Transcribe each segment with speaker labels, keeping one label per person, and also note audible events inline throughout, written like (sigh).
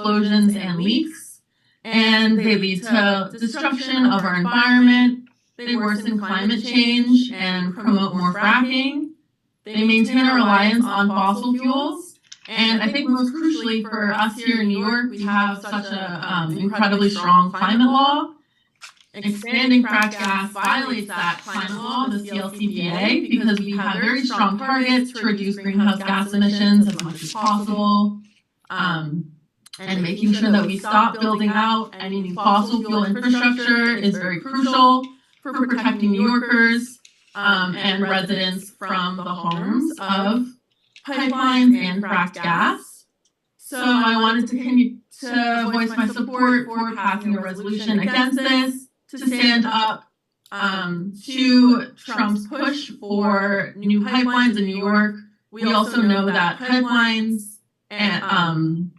Speaker 1: explosions and leaks, and they lead to destruction of our environment, they worsen climate change and promote more fracking, they maintain our reliance on fossil fuels. And I think most crucially for us here in New York, we have such a um, incredibly strong climate law. Expanding frac gas violates that climate law, the CLCPA, because we have very strong targets to reduce greenhouse gas emissions as much as possible.
Speaker 2: um,
Speaker 1: Um, and making sure that we stop building out any new fossil fuel infrastructure is very crucial for protecting New Yorkers, um, and residents from the harms of pipelines and fracked gas. So I wanted to continue to voice my support for passing a resolution against this, to stand up um, to Trump's push for new pipelines in New York. We also know that pipelines and um,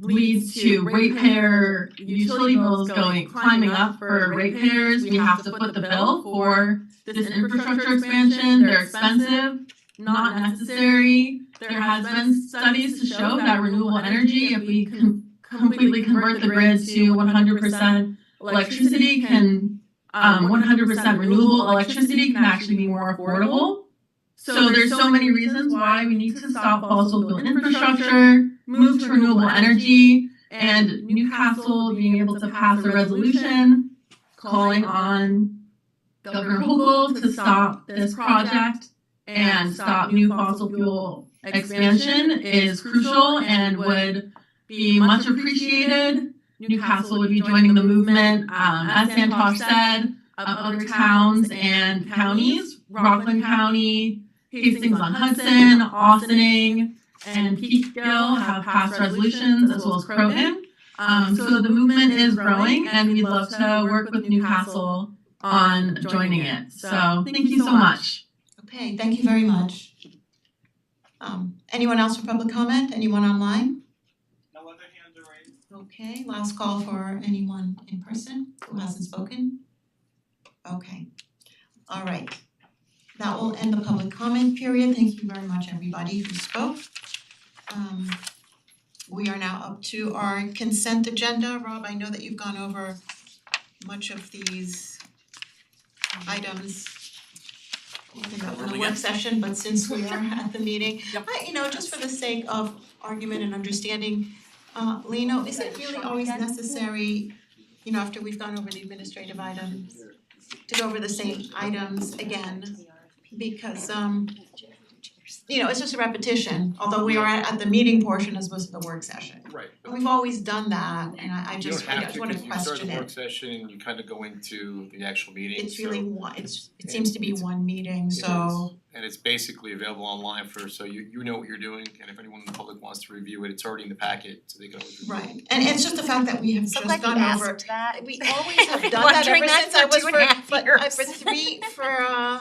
Speaker 1: leads to ratepayer utility bills going climbing up for ratepayers. We have to foot the bill for this infrastructure expansion. They're expensive, not necessary. There has been studies to show that renewable energy, if we can completely convert the grid to 100% electricity, can um, 100% renewable electricity can actually be more affordable. So there's so many reasons why we need to stop fossil fuel infrastructure, move to renewable energy, and Newcastle being able to pass a resolution calling on Governor Hochul to stop this project and stop new fossil fuel expansion is crucial and would be much appreciated. Newcastle would be joining the movement, um, as Santosh said, of other towns and counties, Rockland County, Hastings on Hudson, Austining, and Peekskill have passed resolutions as well as Croton. Um, so the movement is growing and we'd love to work with Newcastle on joining it. So thank you so much.
Speaker 3: Okay, thank you very much. Um anyone else for public comment? Anyone online?
Speaker 4: No other hands are raised.
Speaker 3: Okay, last call for anyone in person who hasn't spoken? Okay, all right. That will end the public comment period. Thank you very much, everybody who spoke. Um we are now up to our consent agenda. Rob, I know that you've gone over much of these items in the- in the work session, but since we are at the meeting, I, you know, just for the sake of argument and understanding, uh, Lino, is it really always necessary, you know, after we've gone over the administrative items, to go over the same items again? Because um, you know, it's just a repetition, although we are at at the meeting portion as opposed to the work session.
Speaker 5: Right.
Speaker 3: And We've always done that, and I I
Speaker 5: You
Speaker 3: Oh,
Speaker 5: don't
Speaker 3: just, I
Speaker 5: have
Speaker 3: just
Speaker 5: to,
Speaker 3: wanna
Speaker 5: cause you start
Speaker 3: question
Speaker 5: the work
Speaker 3: it.
Speaker 5: session and you kind of go into the actual meeting,
Speaker 3: It's
Speaker 5: so.
Speaker 3: really one, it's, it
Speaker 5: Yeah,
Speaker 3: seems to be
Speaker 5: it's-
Speaker 3: one meeting,
Speaker 5: It
Speaker 3: so,
Speaker 5: is, And it's basically available online for, so you you know what you're doing, and if anyone in the public wants to review it, it's already in the packet, so they can always review it.
Speaker 3: right. And it's just the fact that we have just
Speaker 6: So
Speaker 3: gone
Speaker 6: glad
Speaker 3: over.
Speaker 6: you asked that.
Speaker 3: We always have done that
Speaker 6: Wondering
Speaker 3: ever
Speaker 6: that
Speaker 3: since I
Speaker 6: for
Speaker 3: was
Speaker 6: two
Speaker 3: for,
Speaker 6: and a half
Speaker 3: but uh,
Speaker 6: years.
Speaker 3: for three, for uh,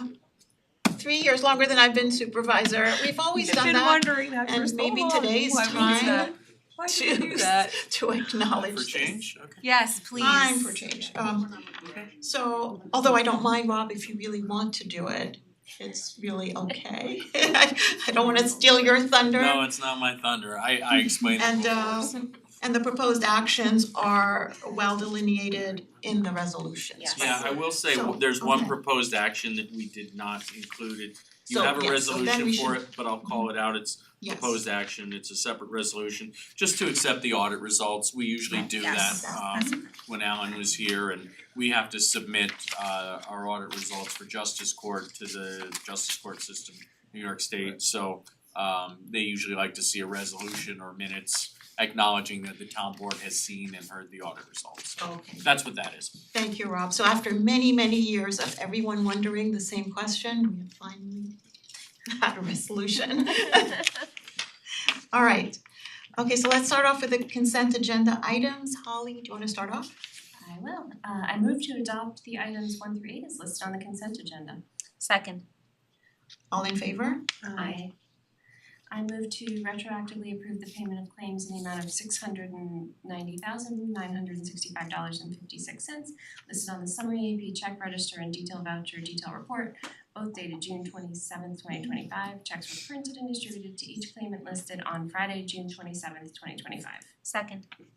Speaker 3: three years longer than I've been supervisor. We've always done
Speaker 7: Been
Speaker 3: that
Speaker 7: wondering that for
Speaker 3: and
Speaker 7: so
Speaker 3: maybe
Speaker 7: long.
Speaker 3: today is
Speaker 7: Why would we do
Speaker 3: time
Speaker 7: that? Why would we do
Speaker 3: to
Speaker 7: that?
Speaker 3: (laughs) to acknowledge
Speaker 5: For
Speaker 3: this.
Speaker 5: change, okay.
Speaker 6: Yes, please.
Speaker 3: Time for change. Um so although I don't mind Rob if you really want to do it, it's really okay. (laughs) I I don't wanna steal your thunder.
Speaker 4: No, it's not my thunder. I I explained it
Speaker 3: And
Speaker 4: before.
Speaker 3: uh and the proposed actions are well delineated in the resolutions, right?
Speaker 4: Yeah, I will say,
Speaker 3: So,
Speaker 4: there's one
Speaker 3: okay.
Speaker 4: proposed action that we did not include it. You
Speaker 3: So,
Speaker 4: have a
Speaker 3: yeah, so then
Speaker 4: resolution
Speaker 3: we
Speaker 4: for
Speaker 3: should-
Speaker 4: it, but I'll call it out. It's
Speaker 3: Yes.
Speaker 4: proposed action. It's a separate resolution, just to accept the audit results. We usually do that
Speaker 6: Yes.
Speaker 4: um when Alan was here and we have to submit uh our audit results for Justice Court to the Justice Court system, New York State. So um they usually like to see a resolution or minutes acknowledging that the town board has seen and heard the audit results. So
Speaker 3: Okay.
Speaker 4: That's what that is.
Speaker 3: Thank you, Rob. So after many, many years of everyone wondering the same question, we have finally (laughs) had a resolution. All right. Okay, so let's start off with the consent agenda items. Holly, do you wanna start off?
Speaker 8: I will. Uh I move to adopt the items one through eight as listed on the consent agenda.
Speaker 6: Second.
Speaker 3: All in favor?
Speaker 8: I I move to retroactively approve the payment of claims in the amount of six hundred and ninety thousand nine hundred and sixty five dollars and fifty six cents listed on the summary AP check register and detail voucher detail report both dated June twenty seventh, twenty twenty five. Checks were printed and distributed to each claimant listed on Friday, June twenty seventh, twenty twenty five.
Speaker 2: Second.